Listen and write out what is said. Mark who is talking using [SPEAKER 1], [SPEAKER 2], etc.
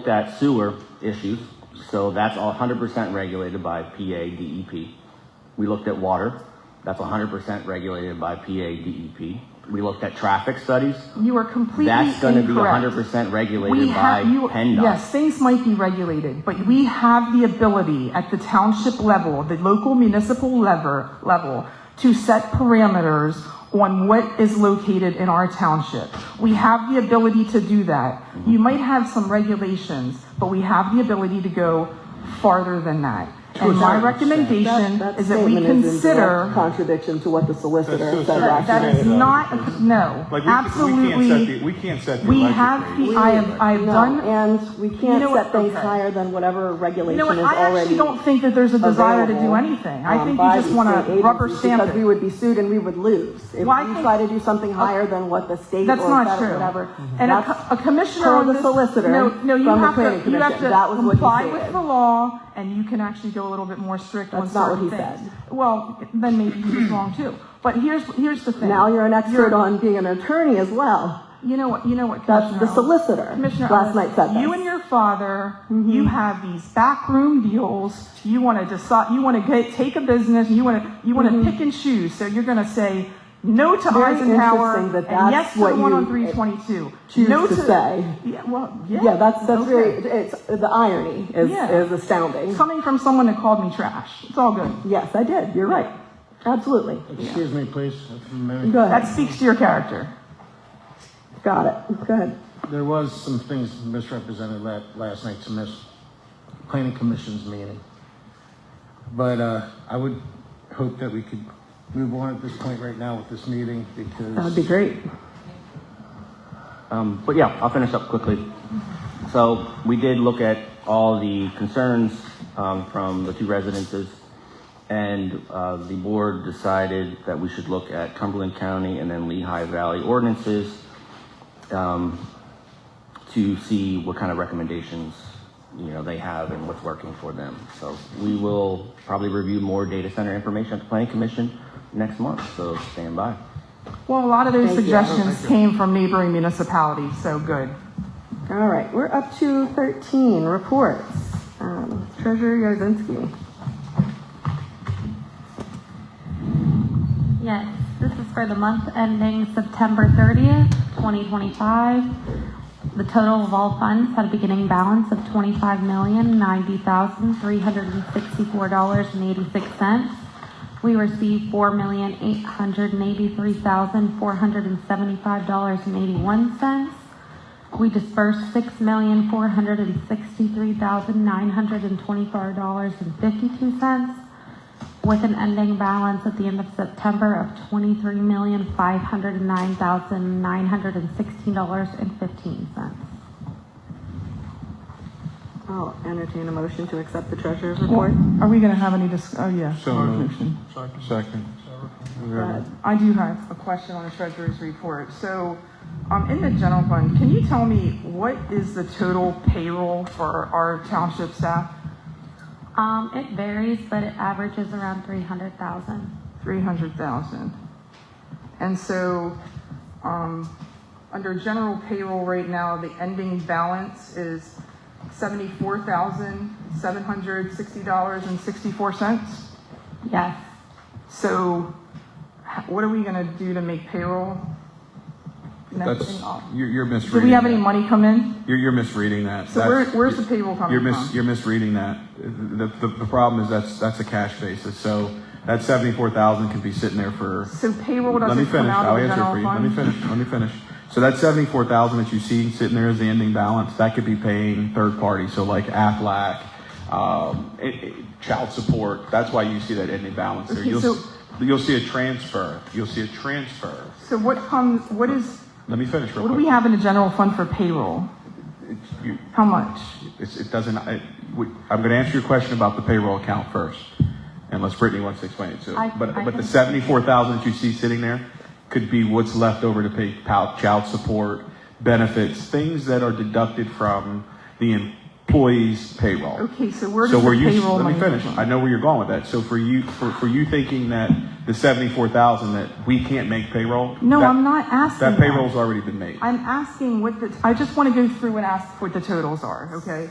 [SPEAKER 1] looked at sewer issues, so that's all hundred percent regulated by PA DEP. E We looked at water, that's hundred percent regulated by PA DEP. E We looked at traffic studies,
[SPEAKER 2] You are completely
[SPEAKER 1] that's gonna be
[SPEAKER 2] incorrect.
[SPEAKER 1] hundred percent regulated by
[SPEAKER 2] We
[SPEAKER 1] E
[SPEAKER 2] have, you,
[SPEAKER 1] PennDOT.
[SPEAKER 2] yes, things might be regulated, but we have the ability at the township level, the local municipal lever, level, to set parameters on what is located in our township. We have the ability to do that. You
[SPEAKER 1] Mm-hmm.
[SPEAKER 2] might have some regulations, but we have the ability to go farther than that. And my recommendation
[SPEAKER 3] That-
[SPEAKER 2] is that we
[SPEAKER 3] statement is in direct
[SPEAKER 2] consider,
[SPEAKER 3] Contradiction to what the solicitor
[SPEAKER 4] That's
[SPEAKER 3] said
[SPEAKER 4] so
[SPEAKER 2] that
[SPEAKER 3] last
[SPEAKER 2] that
[SPEAKER 3] night.
[SPEAKER 2] is not, no,
[SPEAKER 4] Like, we-
[SPEAKER 2] absolutely.
[SPEAKER 4] we can't set the- we can't set the
[SPEAKER 2] We
[SPEAKER 4] electric
[SPEAKER 2] have
[SPEAKER 4] rate.
[SPEAKER 2] the, I have, I have
[SPEAKER 3] No,
[SPEAKER 2] done.
[SPEAKER 3] And we
[SPEAKER 2] know
[SPEAKER 3] can't
[SPEAKER 2] what?
[SPEAKER 3] set things
[SPEAKER 2] Okay.
[SPEAKER 3] higher than whatever regulation
[SPEAKER 2] You
[SPEAKER 3] is
[SPEAKER 2] know what?
[SPEAKER 3] already.
[SPEAKER 2] I actually don't think that there's a desire to do
[SPEAKER 3] available,
[SPEAKER 2] anything. I
[SPEAKER 3] um,
[SPEAKER 2] think
[SPEAKER 3] by
[SPEAKER 2] you just
[SPEAKER 3] the
[SPEAKER 2] want
[SPEAKER 3] state
[SPEAKER 2] to rubber
[SPEAKER 3] agencies
[SPEAKER 2] stamp
[SPEAKER 3] Because we
[SPEAKER 2] it.
[SPEAKER 3] would be sued and we would lose. If we
[SPEAKER 2] Well, I think-
[SPEAKER 3] try to do something higher than what the state or
[SPEAKER 2] That's not
[SPEAKER 3] federal,
[SPEAKER 2] true.
[SPEAKER 3] whatever.
[SPEAKER 2] And a
[SPEAKER 3] that's
[SPEAKER 2] co- a commissioner
[SPEAKER 3] per
[SPEAKER 2] on
[SPEAKER 3] the
[SPEAKER 2] this-
[SPEAKER 3] solicitor
[SPEAKER 2] no, no, you
[SPEAKER 3] from the
[SPEAKER 2] have to-
[SPEAKER 3] planning
[SPEAKER 2] You have
[SPEAKER 3] commission. That
[SPEAKER 2] to
[SPEAKER 3] was what he
[SPEAKER 2] comply with
[SPEAKER 3] said.
[SPEAKER 2] the law, and you can actually go a little bit more strict on
[SPEAKER 3] That's not what
[SPEAKER 2] certain
[SPEAKER 3] he
[SPEAKER 2] things.
[SPEAKER 3] said.
[SPEAKER 2] Well, then maybe he was wrong too. But here's, here's the thing.
[SPEAKER 3] Now you're an expert
[SPEAKER 2] You're-
[SPEAKER 3] on being an attorney as well.
[SPEAKER 2] You know what, you know what,
[SPEAKER 3] That's
[SPEAKER 2] Commissioner.
[SPEAKER 3] the
[SPEAKER 2] Owens-
[SPEAKER 3] solicitor
[SPEAKER 2] Commissioner
[SPEAKER 3] last night
[SPEAKER 2] Owens,
[SPEAKER 3] said
[SPEAKER 2] You
[SPEAKER 3] this. Mm-hmm.
[SPEAKER 2] and your father, you have these backroom deals. You want to decide, you want to get, take a business, you want to, you want to pick and choose. So you're going to say no to
[SPEAKER 3] Mm-hmm. Very
[SPEAKER 2] Eisenhower
[SPEAKER 3] interesting that
[SPEAKER 2] and yes
[SPEAKER 3] that's
[SPEAKER 2] to the
[SPEAKER 3] what
[SPEAKER 2] one
[SPEAKER 3] you,
[SPEAKER 2] on
[SPEAKER 3] uh,
[SPEAKER 2] 322.
[SPEAKER 3] choose
[SPEAKER 2] no
[SPEAKER 3] to say.
[SPEAKER 2] Yeah, well, yeah.
[SPEAKER 3] Yeah, that's, that's
[SPEAKER 2] okay.
[SPEAKER 3] very, it's, the irony is,
[SPEAKER 2] Yeah.
[SPEAKER 3] is astounding.
[SPEAKER 2] Coming from someone that called me trash. It's all good.
[SPEAKER 3] Yes, I did. You're right. Absolutely.
[SPEAKER 5] Excuse me, please. if I may.
[SPEAKER 3] Go
[SPEAKER 2] That
[SPEAKER 3] ahead.
[SPEAKER 2] speaks to your character.
[SPEAKER 3] Got it. Go ahead.
[SPEAKER 5] There was some things misrepresented la- last night to miss planning commission's meeting. But uh, I would hope that we could move on at this point right now with this meeting
[SPEAKER 3] That would
[SPEAKER 5] because
[SPEAKER 3] be great.
[SPEAKER 1] Um, but yeah, I'll finish up quickly. So we did look at all the concerns um, from the two residences, and uh, the board decided that we should look at Cumberland County and then Lehigh Valley ordinances um, to see what kind of recommendations you know they have and what's working for them. So we will probably review more data center information at the Planning Commission next month. So stand by.
[SPEAKER 2] Well, a lot of those
[SPEAKER 3] Thank you.
[SPEAKER 2] suggestions came from neighboring municipalities, so good.
[SPEAKER 3] All right, we're up to 13 reports. Um, Treasurer Yarzinski.
[SPEAKER 6] Yes, this is for the month ending September 30th, 2025. The total of all funds had a beginning balance of $25,090,364.86. We received $4,883,475.81. We dispersed $6,463,924.52 with an ending balance at the end of September of twenty-three million, five hundred and nine thousand, nine hundred and sixteen dollars and fifteen cents.
[SPEAKER 3] I'll entertain a motion to accept the treasurer's report.
[SPEAKER 2] Are we going to have any dis, oh, yeah.
[SPEAKER 4] So
[SPEAKER 2] Our
[SPEAKER 4] moved.
[SPEAKER 2] commission.
[SPEAKER 4] Second.
[SPEAKER 2] I do have a question on the treasurer's report. So, um, in the general fund, can you tell me what is the total payroll for our township staff?
[SPEAKER 6] Um, it varies, but it averages around three hundred thousand.
[SPEAKER 2] Three hundred thousand. And so, um, under general payroll right now, the ending balance is seventy-four thousand, seven hundred sixty dollars and sixty-four cents.
[SPEAKER 6] Yes,
[SPEAKER 2] So, h- what are we gonna do to make payroll? next
[SPEAKER 4] That's,
[SPEAKER 2] thing off?
[SPEAKER 4] you're, you're
[SPEAKER 2] Do
[SPEAKER 4] misreading.
[SPEAKER 2] we have any
[SPEAKER 4] that.
[SPEAKER 2] money come in?
[SPEAKER 4] You're, you're misreading that.
[SPEAKER 2] So where-
[SPEAKER 4] That's-
[SPEAKER 2] where's the payroll coming
[SPEAKER 4] you're mis-
[SPEAKER 2] from?
[SPEAKER 4] You're misreading that. The, the, the problem is that's, that's a cash basis, so that seventy-four thousand can be sitting there for.
[SPEAKER 2] So payroll
[SPEAKER 4] Let me
[SPEAKER 2] doesn't come
[SPEAKER 4] finish.
[SPEAKER 2] out
[SPEAKER 4] I'll
[SPEAKER 2] of the
[SPEAKER 4] answer it for
[SPEAKER 2] general
[SPEAKER 4] you. Let me
[SPEAKER 2] fund?
[SPEAKER 4] finish, let me finish. So that seventy-four thousand that you see sitting there as the ending balance, that could be paying third party, so like Aflac, um, it, it, child support, that's why you see that ending balance there.
[SPEAKER 2] Okay,
[SPEAKER 4] You'll,
[SPEAKER 2] so-
[SPEAKER 4] s- you'll see a transfer, you'll see a transfer.
[SPEAKER 2] So what comes, what is,
[SPEAKER 4] Let me finish real
[SPEAKER 2] what do
[SPEAKER 4] quick.
[SPEAKER 2] we have in the general fund for payroll?
[SPEAKER 4] It's- you-
[SPEAKER 2] How much?
[SPEAKER 4] It's, it doesn't, I, we, I'm gonna answer your question about the payroll account first, unless Brittany wants to explain it too.
[SPEAKER 6] I-
[SPEAKER 4] But,
[SPEAKER 6] I
[SPEAKER 4] but the
[SPEAKER 6] can-
[SPEAKER 4] seventy-four thousand that you see sitting there could be what's left over to pay pow- child support, benefits, things that are deducted from the em- employees' payroll.
[SPEAKER 2] Okay, so where
[SPEAKER 4] So
[SPEAKER 2] does the
[SPEAKER 4] where you,
[SPEAKER 2] payroll
[SPEAKER 4] let
[SPEAKER 2] money
[SPEAKER 4] me
[SPEAKER 2] come
[SPEAKER 4] finish.
[SPEAKER 2] from?
[SPEAKER 4] I know where you're going with that. So for you, for, for you thinking that the seventy-four thousand, that we can't make payroll?
[SPEAKER 2] No,
[SPEAKER 4] that-
[SPEAKER 2] I'm not asking
[SPEAKER 4] That
[SPEAKER 2] that.
[SPEAKER 4] payroll's already been made.
[SPEAKER 2] I'm asking what the, I just want to go through and ask what the totals are, okay?